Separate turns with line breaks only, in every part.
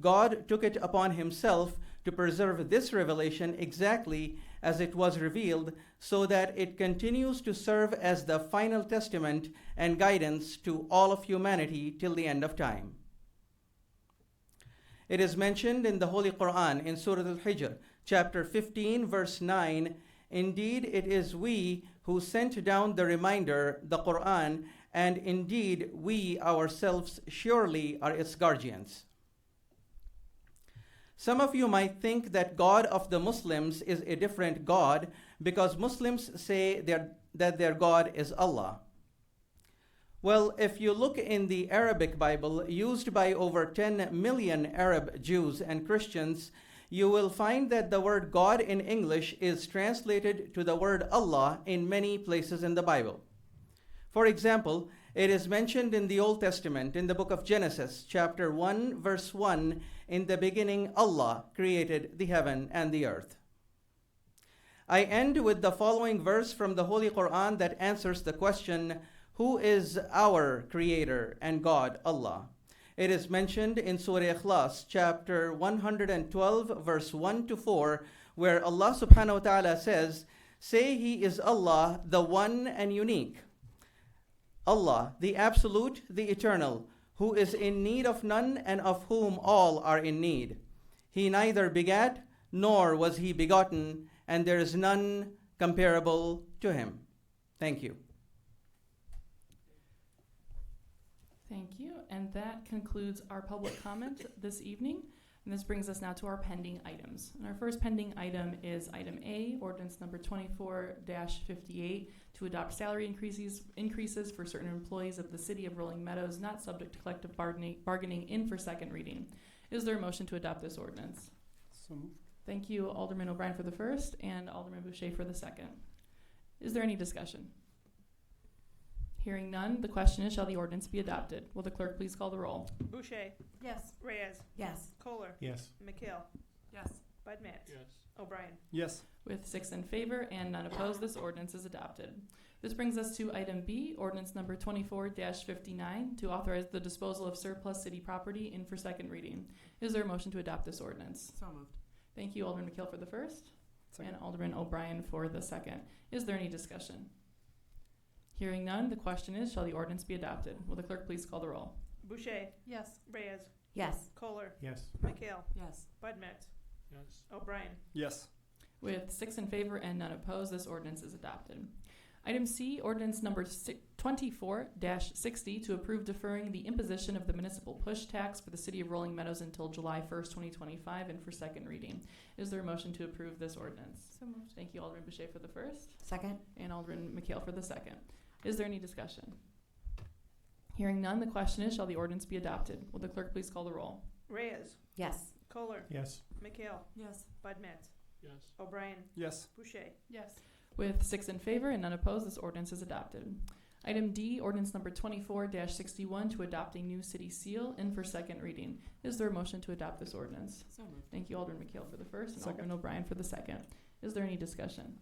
God took it upon himself to preserve this revelation exactly as it was revealed, so that it continues to serve as the final testament and guidance to all of humanity till the end of time. It is mentioned in the Holy Quran in Surah Al Hijr, chapter 15, verse 9 Indeed, it is we who sent down the reminder, the Quran, and indeed we ourselves surely are its guardians. Some of you might think that God of the Muslims is a different God because Muslims say their, that their God is Allah. Well, if you look in the Arabic Bible, used by over 10 million Arab Jews and Christians, you will find that the word God in English is translated to the word Allah in many places in the Bible. For example, it is mentioned in the Old Testament in the book of Genesis, chapter 1, verse 1 In the beginning, Allah created the heaven and the earth. I end with the following verse from the Holy Quran that answers the question Who is our Creator and God, Allah? It is mentioned in Surah Ikhlas, chapter 112, verse 1 to 4, where Allah subhanahu wa ta'ala says, Say He is Allah, the one and unique. Allah, the Absolute, the Eternal, who is in need of none and of whom all are in need. He neither begat nor was he begotten, and there is none comparable to him. Thank you.
Thank you. And that concludes our public comment this evening. And this brings us now to our pending items. And our first pending item is item A, ordinance number twenty-four fifty-eight, to adopt salary increases, increases for certain employees of the city of Rolling Meadows not subject to collective bargaining, bargaining in for second reading. Is there a motion to adopt this ordinance?
So moved.
Thank you Alderman O'Brien for the first and Alderman Boucher for the second. Is there any discussion? Hearing none, the question is, shall the ordinance be adopted? Will the clerk please call the roll?
Boucher,
Yes.
Reyes,
Yes.
Kohler,
Yes.
McHale,
Yes.
Bud Matts, O'Brien.
Yes.
With six in favor and none opposed, this ordinance is adopted. This brings us to item B, ordinance number twenty-four fifty-nine, to authorize the disposal of surplus city property in for second reading. Is there a motion to adopt this ordinance?
So moved.
Thank you, Alderman McKeel for the first,
Second.
and Alderman O'Brien for the second. Is there any discussion? Hearing none, the question is, shall the ordinance be adopted? Will the clerk please call the roll?
Boucher,
Yes.
Reyes,
Yes.
Kohler,
Yes.
McHale,
Yes.
Bud Matts,
Yes.
O'Brien.
Yes.
With six in favor and none opposed, this ordinance is adopted. Item C, ordinance number twenty-four sixty, to approve deferring the imposition of the municipal push tax for the city of Rolling Meadows until July first, twenty twenty-five, and for second reading. Is there a motion to approve this ordinance?
So moved.
Thank you, Alderman Boucher for the first,
Second?
and Alderman McHale for the second. Is there any discussion? Hearing none, the question is, shall the ordinance be adopted? Will the clerk please call the roll?
Reyes,
Yes.
Kohler,
Yes.
McHale,
Yes.
Bud Matts,
Yes.
O'Brien,
Yes.
Boucher.
Yes.
With six in favor and none opposed, this ordinance is adopted. Item D, ordinance number twenty-four sixty-one to adopt a new city seal in for second reading. Is there a motion to adopt this ordinance?
So moved.
Thank you, Alderman McHale for the first and
Second.
Alderman O'Brien for the second. Is there any discussion?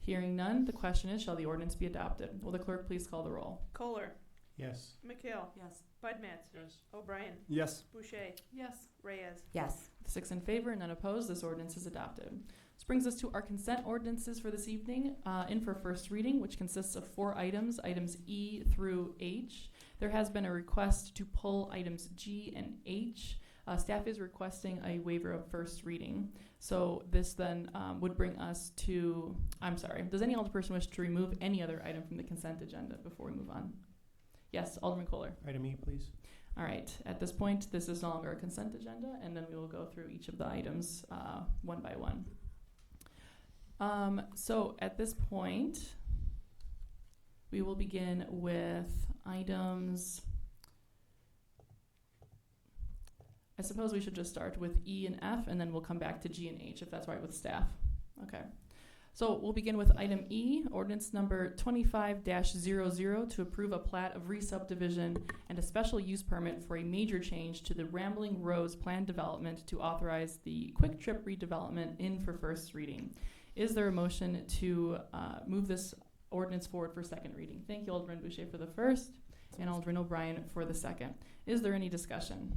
Hearing none, the question is, shall the ordinance be adopted? Will the clerk please call the roll?
Kohler,
Yes.
McHale,
Yes.
Bud Matts,
Yes.
O'Brien,
Yes.
Boucher,
Yes.
Reyes.
Yes.
Six in favor and none opposed, this ordinance is adopted. This brings us to our consent ordinances for this evening, uh, in for first reading, which consists of four items, items E through H. There has been a request to pull items G and H. Uh, staff is requesting a waiver of first reading. So this then, um, would bring us to, I'm sorry, does any alderperson wish to remove any other item from the consent agenda before we move on? Yes, Alderman Kohler.
Item E, please.
All right, at this point, this is no longer a consent agenda, and then we will go through each of the items uh, one by one. Um, so at this point, we will begin with items. I suppose we should just start with E and F, and then we'll come back to G and H if that's all right with staff. Okay. So we'll begin with item E, ordinance number 25 00 to approve a plat of re subdivision and a special use permit for a major change to the Rambling Rose planned development to authorize the Quick Trip redevelopment in for first reading. Is there a motion to uh, move this ordinance forward for second reading? Thank you, Alderman Boucher for the first, and Alderman O'Brien for the second. Is there any discussion?